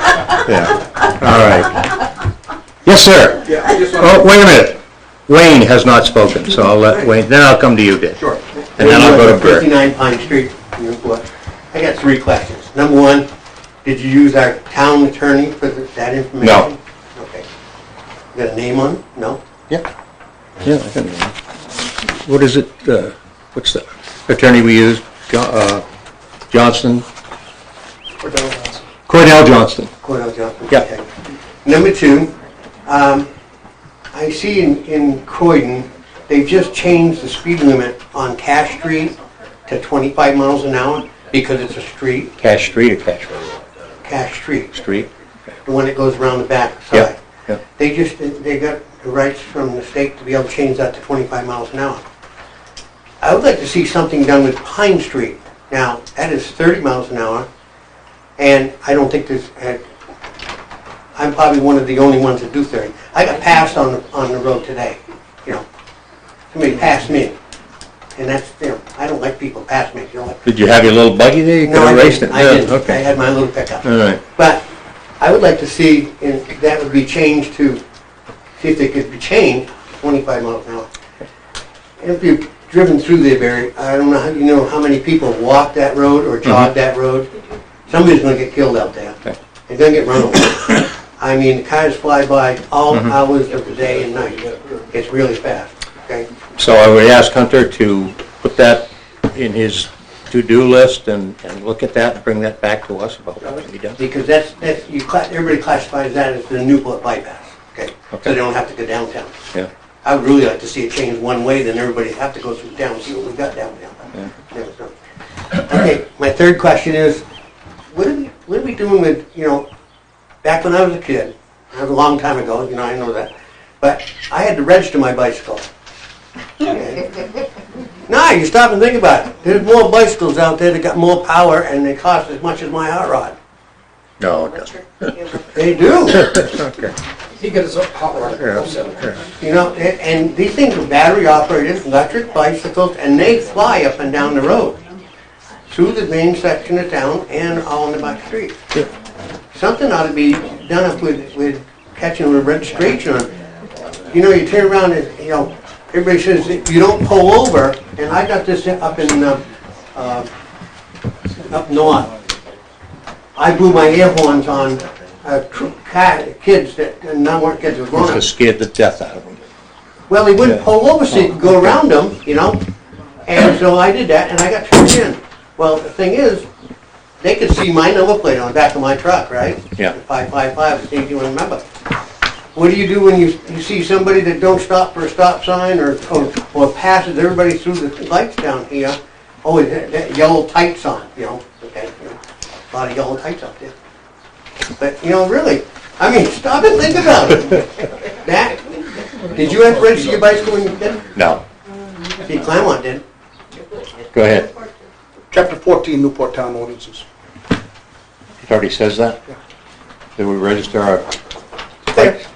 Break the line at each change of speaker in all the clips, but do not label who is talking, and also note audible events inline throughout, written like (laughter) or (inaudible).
Yeah, all right. Yes, sir.
Yeah, I just
Oh,
want
wait a minute. Wayne has not spoken, so I'll let Wayne, then I'll come to you, Dick.
to, sure.
And then I'll go to Bert.
59 Pine Street, Newport. I got three questions. Number one, did you use our town attorney for th- that information?
No.
Okay. You Got a name on it? No?
Yeah. Yeah, I can. What is it, uh, what's the attorney we use? Jo- uh, Johnston?
Cordell?
Cordell Johnston.
Cordell Johnson?
Yeah.
okay. Number two, um, I see in in Croydon, they've just changed the speed limit on Cash Street to 25 miles an hour because it's a street,
Cash Street or Cash Road?
Cash Street,
Street.
the one that goes around the back
Yeah,
side.
yeah.
They just, they got the rights from the state to be able to change that to 25 miles an hour. I would like to see something done with Pine Street. Now, that is 30 miles an hour, and I don't think there's, uh, I'm probably one of the only ones that do 30. I got passed on, the on the road today, you know. Somebody passed me, and that's, you know, I don't like people pass me, you know. like-
Did you have your little buggy there? You could
No, I
have raced
didn't,
it.
I
Yeah,
didn't. I
Okay. Uh,
had my little pickup.
All right.
But I would like to see, and that would be changed to, see if they could be changed, 25 miles an hour. And if you've driven through there, Barry, I don't know, how you know how many people walk that road or jog that road. Somebody's gonna get killed out there.
Mm-hmm. Okay.
They're gonna get run over. I mean, cars fly by all
Mm-hmm.
hours of the day and night. It's really fast, okay?
So I would ask Hunter to put that in his to-do list and, and look at that and bring that back to us about what he does.
Because that's, that's, you, cla- everybody classifies that as the Newport bypass, okay? So
Okay.
they don't have to go downtown.
Yeah.
I would really like to see it change one way, then everybody have to go through down, see what we got down there. Yeah, so. Okay, my third question is, what are we, what are we doing with, you know, back when I was a kid, that was a long time ago, you know, I know that, but I had to register my bicycle. Now, you stop and think about it, there's more bicycles out there that got more power and they cost as much as my hot rod.
No, it doesn't.
They do.
Okay.
He got his own hot water.
Yeah,
also.
You know, a- and these things are battery operated, electric bicycles, and they fly up and down the road through the main section of town and on the back street. Something ought to be done up with, with catching the registration on. You know, you turn around and, you know, everybody says, that you don't pull over, and I got this up in, uh, uh, up north. I blew my air horns on, uh, tr- ca- kids that, and not weren't kids, they were grown
Must have scared the death out of him.
well, he wouldn't
Yeah.
pull over so you could go around him, you know? And so I did that, and I got turned in. Well, the thing is, they could see my number plate on the back of my truck, right?
Yeah.
Five, five, five, they do remember. What do you do when you, you see somebody that don't stop for a stop sign or, or, or passes everybody through the lights down here? Oh, that, that yellow tights on, you know, okay, you know, a lot of yellow tights up there. But, you know, really, I mean, stop and think about it. (laughs) That, did you have to register your bicycle when you were a
No,
kid? See, Claremont did.
go ahead.
Chapter 14, Newport Town ordinances.
It already says that? That we register our
There.
bikes?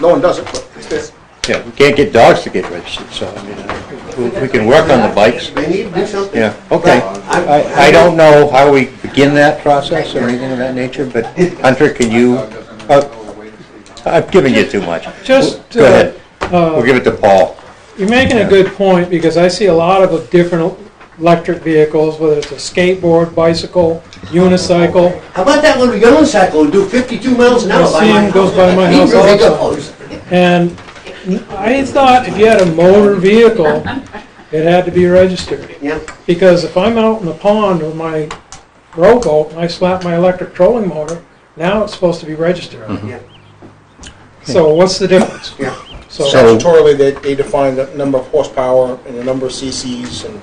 No one does it, but it's there.
Yeah, we can't get dogs to get registered, so, I mean, uh, we- we can work on the bikes.
They need to do something.
Yeah, okay. I, I don't know how we begin that process or anything of that nature, but Hunter, can you, uh, I've given you too much.
Just,
Go ahead.
uh,
We'll give it to Paul.
You're making a good point, because I see a lot of different electric vehicles, whether it's a skateboard, bicycle, unicycle.
How about that little yellow cycle who do 52 miles an hour
I
by
see
my
him
house?
goes by my
He
house
really
also.
goes.
And I thought if you had a motor vehicle, it had to be registered.
Yeah,
Because if I'm out in the pond with my rowboat, and I slap my electric trolling motor, now it's supposed to be registered.
Mm-hmm.
yeah,
So what's the difference?
yeah.
So,
So-
Statutorily, they, they define the number of horsepower and the number of CCs and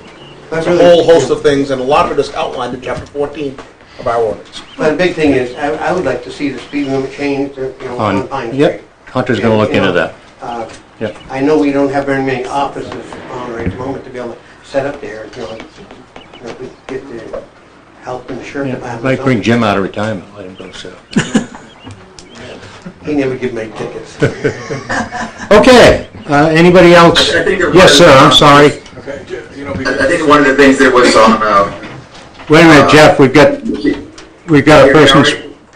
That's
a whole host of things, and a lot of it is outlined in chapter 14 of our ordinance.
But the big thing is, I, I would like to see the speed limit changed, you know, on Pine Street.
Yep, Hunter's gonna look into that.
Uh,
Yep.
I know we don't have very many offices on right at the moment to be able to set up there, you know, you know, if we get the health and insurance.
Yeah,
department
Might
or
bring Jim out of retirement, let him go sell.
something. He never give me tickets.
Okay, uh, anybody else?
I think it
Yes,
was,
sir, I'm
uh,
sorry.
I think one of the things that was on, uh,
Wait a minute, Jeff, we've got, we've got a
Can you hear me
person,
already?